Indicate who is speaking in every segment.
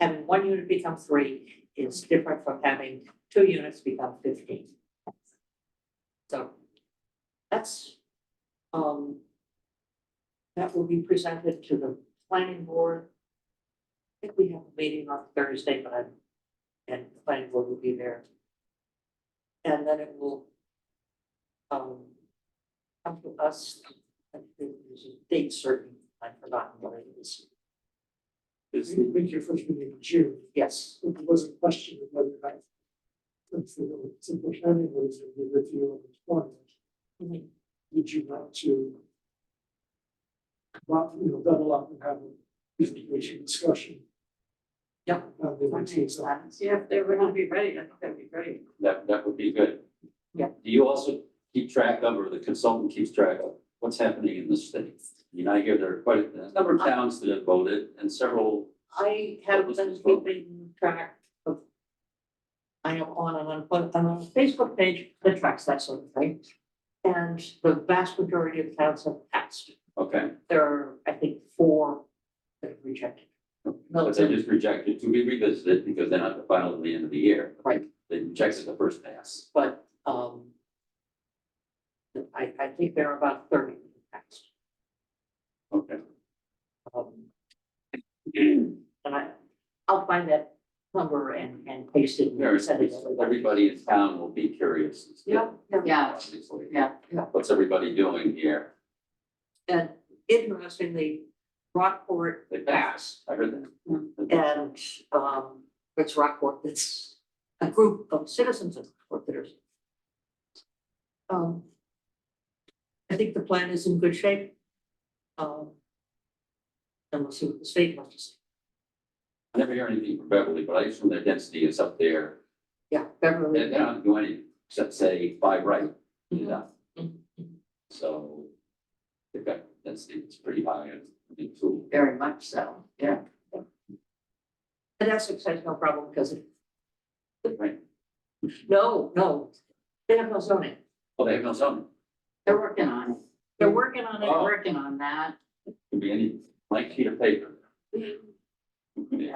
Speaker 1: having one unit become three is different from having two units become fifteen. So that's, um, that will be presented to the planning board. I think we have a meeting on Thursday, but I'm, and the planning board will be there. And then it will, um, come to us, I think there's a date certain, I've forgotten what it is,
Speaker 2: Because you think your first meeting in June,
Speaker 1: yes.
Speaker 2: so there was a question of whether that. Since the simple planning was in the review of the plan, would you want to? Lot, you know, double up and have a presentation discussion.
Speaker 1: Yeah.
Speaker 2: On the routines.
Speaker 3: Yeah, if they were gonna be ready, I think that'd be great.
Speaker 4: That, that would be good.
Speaker 1: Mm-hmm. Yeah.
Speaker 4: Do you also keep track of, or the consultant keeps track of, what's happening in the state? You know, I hear there are quite a number of towns that have voted and several,
Speaker 1: I have been keeping track of. I am on an, unpl- I'm on a Facebook page that tracks that sort of thing. And the vast majority of towns have passed.
Speaker 4: okay,
Speaker 1: There are, I think, four that have rejected. No,
Speaker 4: but they just rejected to be revisited because they're not the final at the end of the year.
Speaker 1: Right.
Speaker 4: They rejected the first pass.
Speaker 1: but, um. I, I think there are about thirty that passed.
Speaker 4: Okay.
Speaker 1: Um, And I, I'll find that number and, and paste it.
Speaker 4: There
Speaker 1: and
Speaker 4: is,
Speaker 1: send it to everybody.
Speaker 4: everybody in town will be curious. as to-
Speaker 1: Yeah, yeah.
Speaker 3: Yeah,
Speaker 4: Obviously.
Speaker 3: yeah,
Speaker 1: yeah.
Speaker 4: What's everybody doing here?
Speaker 1: And interestingly, Rockport
Speaker 4: They passed, I heard that.
Speaker 1: and, um, it's Rockport, it's a group of citizens of Rockport that are. Um, I think the plan is in good shape. Um, and we'll see what the state wants to say.
Speaker 4: I never hear anything from Beverly, but I assume their density is up there
Speaker 1: Yeah, Beverly.
Speaker 4: They're not doing anything except say by right, you know,
Speaker 1: Mhm.
Speaker 4: so. They've got, that's, it's pretty high, I think, too.
Speaker 3: very much so, yeah.
Speaker 1: And Essex has no problem because it.
Speaker 4: Right.
Speaker 1: No, no, they have no zoning.
Speaker 4: Oh, they have no zoning,
Speaker 3: They're working on it.
Speaker 1: They're working on
Speaker 3: They're
Speaker 1: it.
Speaker 4: Oh.
Speaker 3: working on that.
Speaker 4: could be any blank sheet of paper.
Speaker 3: Yeah, they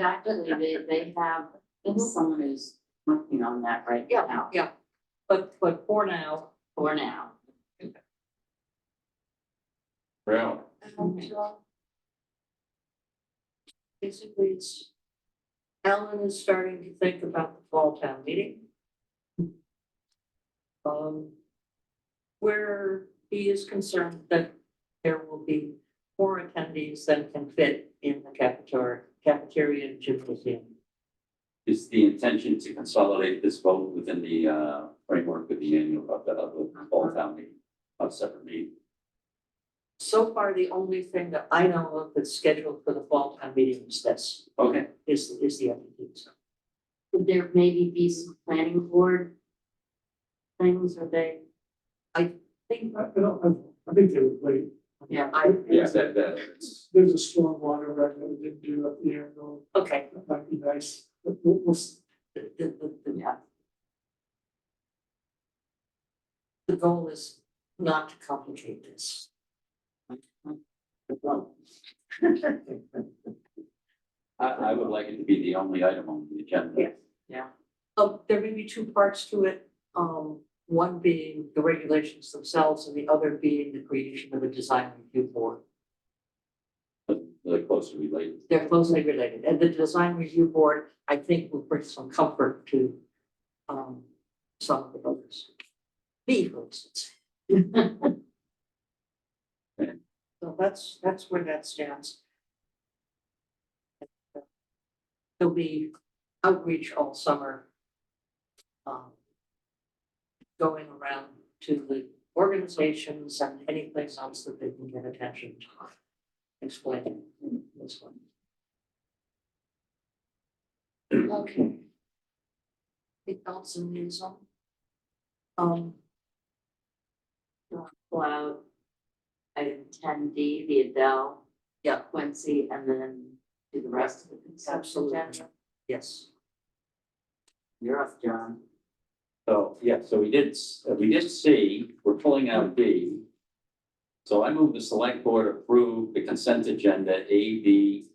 Speaker 3: actually, they, they have, someone who's working on that right
Speaker 1: Yeah,
Speaker 3: now,
Speaker 1: yeah. But, but for now,
Speaker 3: for now.
Speaker 4: Well,
Speaker 1: And, uh, Basically, it's, Alan is starting to think about the fall town meeting. Um, where he is concerned that there will be more attendees than can fit in the cafeteria, cafeteria and gymnasium.
Speaker 4: is the intention to consolidate this vote within the uh framework of the annual, of the, of the fall town meeting, of separate meeting?
Speaker 1: So far, the only thing that I know of that's scheduled for the fall town meeting is this,
Speaker 4: Okay,
Speaker 1: is, is the attendees.
Speaker 3: Would there maybe be some planning board things, or they,
Speaker 1: Think-
Speaker 2: I, I don't, I, I think they would wait.
Speaker 3: Yeah,
Speaker 1: I-
Speaker 4: yeah, that, that, it's-
Speaker 2: There's a storm water record we didn't do up here, though,
Speaker 1: Okay,
Speaker 2: that might be nice, but we'll, we'll, s-
Speaker 1: the- the- the- the-
Speaker 3: yeah,
Speaker 1: the goal is not to complicate this.
Speaker 4: I, I would like it to be the only item on the agenda.
Speaker 1: Yeah. Um, there may be two parts to it, um, one being the regulations themselves and the other being the creation of a design review board.
Speaker 4: But the closer we lay,
Speaker 1: They're closely related, and the design review board, I think, will bring some comfort to, um, some of the voters. Me, for instance. So that's, that's where that stands. There'll be outreach all summer. um, Going around to the organizations and any place else that they can get attention to. Explaining this one. Okay. Anything else in news on? Um,
Speaker 3: pull out item ten D, the Adele.
Speaker 1: Yeah.
Speaker 3: Quincy, and then do the rest of the consumption
Speaker 1: Absolutely.
Speaker 3: agenda.
Speaker 1: yes.
Speaker 3: You're off, John.
Speaker 4: So, yeah, so we did, s- uh, we did see, we're pulling out B. So I move the select board approve the consent agenda A, B,